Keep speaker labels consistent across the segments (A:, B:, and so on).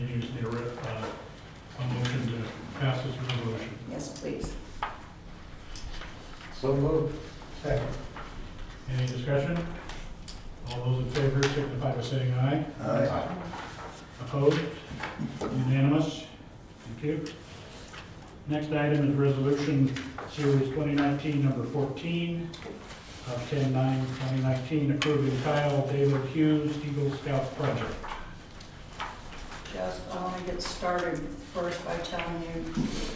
A: you just need a, re- uh, a motion to pass this resolution.
B: Yes, please.
C: So moved. Second.
A: Any discussion? All those in favor signify by saying aye.
C: Aye.
A: Opposed? Unanimous? Thank you. Next item is Resolution Series 2019, number 14, of 10/9/2019, approving Kyle David Hughes Eagle Scout Project.
B: Just, I want to get started first by telling you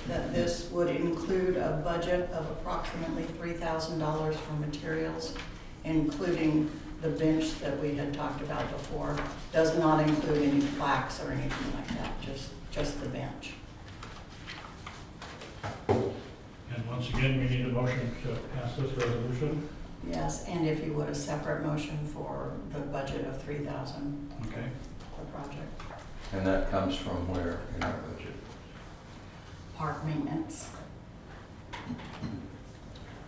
B: that this would include a budget of approximately $3,000 for materials, including the bench that we had talked about before. Does not include any plaques or anything like that, just, just the bench.
A: And once again, we need a motion to pass this resolution.
B: Yes, and if you would, a separate motion for the budget of 3,000
A: Okay.
B: for project
C: And that comes from where in our budget?
B: park maintenance.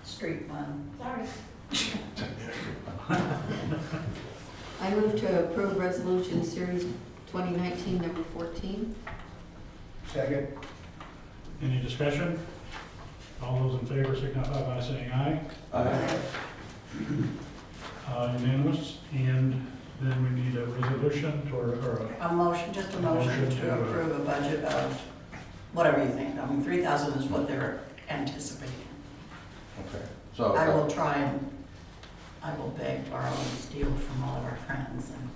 B: Street fund.
D: Sorry.
E: I move to approve resolution series 2019, number 14.
C: Second.
A: Any discussion? All those in favor signify by saying aye.
C: Aye.
A: Uh, Unanimous. And then we need a resolution or, or a
B: A motion, just a motion
A: Motion to-
B: to approve a budget of whatever you think. I mean, 3,000 is what they're anticipating.
C: Okay, so,
B: I will try and, I will beg, borrow, and steal from all of our friends and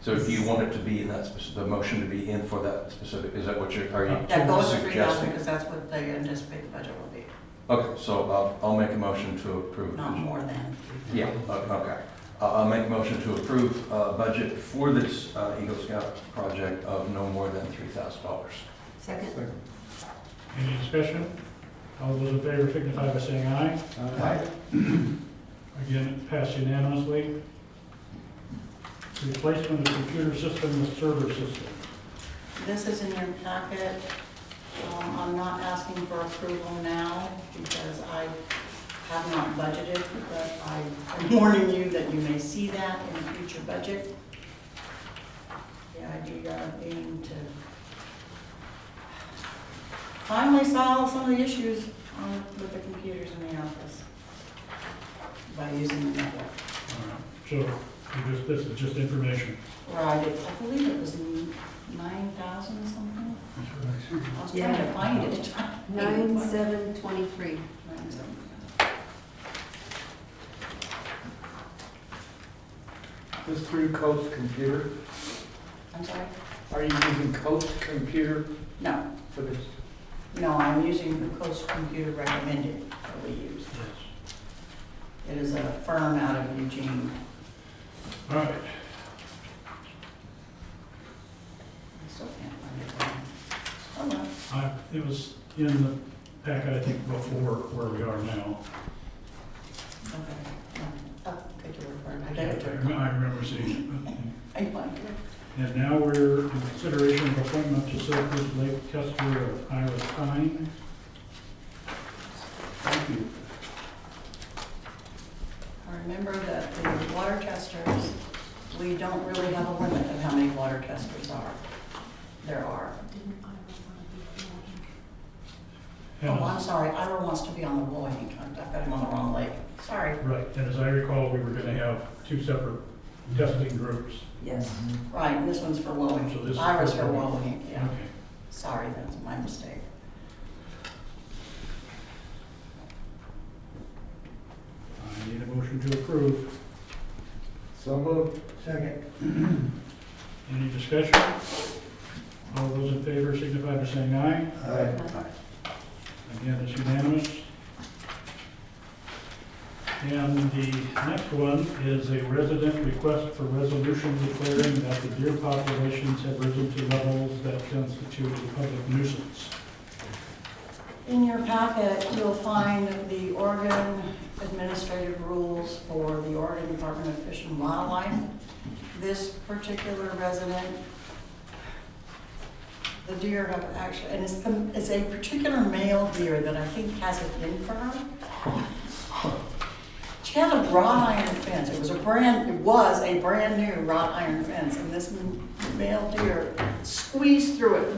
C: so do you want it to be in that specific, the motion to be in for that specific, is that what you're, are
F: Uh-huh.
C: you
B: that goes to 3,000
C: suggesting?
B: because that's what they anticipate the budget will be,
C: Okay, so uh, I'll, I'll make a motion to approve.
B: not more than.
C: Yeah, uh, o- okay. I'll, I'll make a motion to approve, uh, budget for this, uh, Eagle Scout project of no more than three thousand dollars.
E: Second?
A: Any discussion? All those in favor signify by saying aye.
C: Aye.
A: Again, it passed unanimously. Replacement of computer system with server system.
B: This is in your packet. Um, I'm not asking for approval now because I have not budgeted, but I am warning you that you may see that in a future budget. The idea being to finally solve some of the issues on- with the computers in the office by using the network.
A: So we just- this is just information.
B: Or I did, I believe it was nine thousand something. I was trying to
E: Yeah.
B: find it.
E: 9723.
B: Nine seven.
F: This through Coast Computer,
B: I'm sorry?
F: are you using Coast Computer
B: No,
F: for this?
B: no, I'm using the Coast Computer recommended that we use.
A: Yes.
B: It is a firm out of Eugene.
A: All right,
B: I still can't find it. Oh, well.
A: I, it was in the packet, I think, before where we are now.
B: Okay. no. Oh, good to refer. I
A: I
B: got it. to
A: rem-
B: refer.
A: I remember seeing it.
B: I find it.
A: And now we're in consideration of appointment to serve as Lake Custer of Ira Pine. Thank you.
B: I Remember that the water testers, we don't really have a limit of how many water testers are. There are.
A: And
B: Oh,
A: as-
B: I'm sorry, Ira wants to be on the Boyne, I've got him on the wrong lake, sorry.
A: Right, and as I recall, we were gonna have two separate testing groups.
B: Yes. Right, and this one's for
A: Mm-hmm. So this
B: Wellwing,
A: is
B: Ira's
A: for
B: for
A: Wellwing.
B: Wellwing, yeah,
A: Okay.
B: sorry, that's my mistake.
A: I need a motion to approve.
F: So moved. Second.
A: Any discussion? All those in favor signify by saying aye.
F: Aye.
A: Again, it's unanimous. And the next one is a resident request for resolution declaring that the deer populations have risen to levels that constitute a public nuisance.
B: In your packet, you'll find the Oregon administrative rules for the Oregon Department of Fish and Wildlife. This particular resident, the deer have actually, and it's, the- it's a particular male deer that I think has it in for her. She had a wrought iron fence, it was a brand, it was a brand new wrought iron fence, and this m- male deer squeezed squeeze through it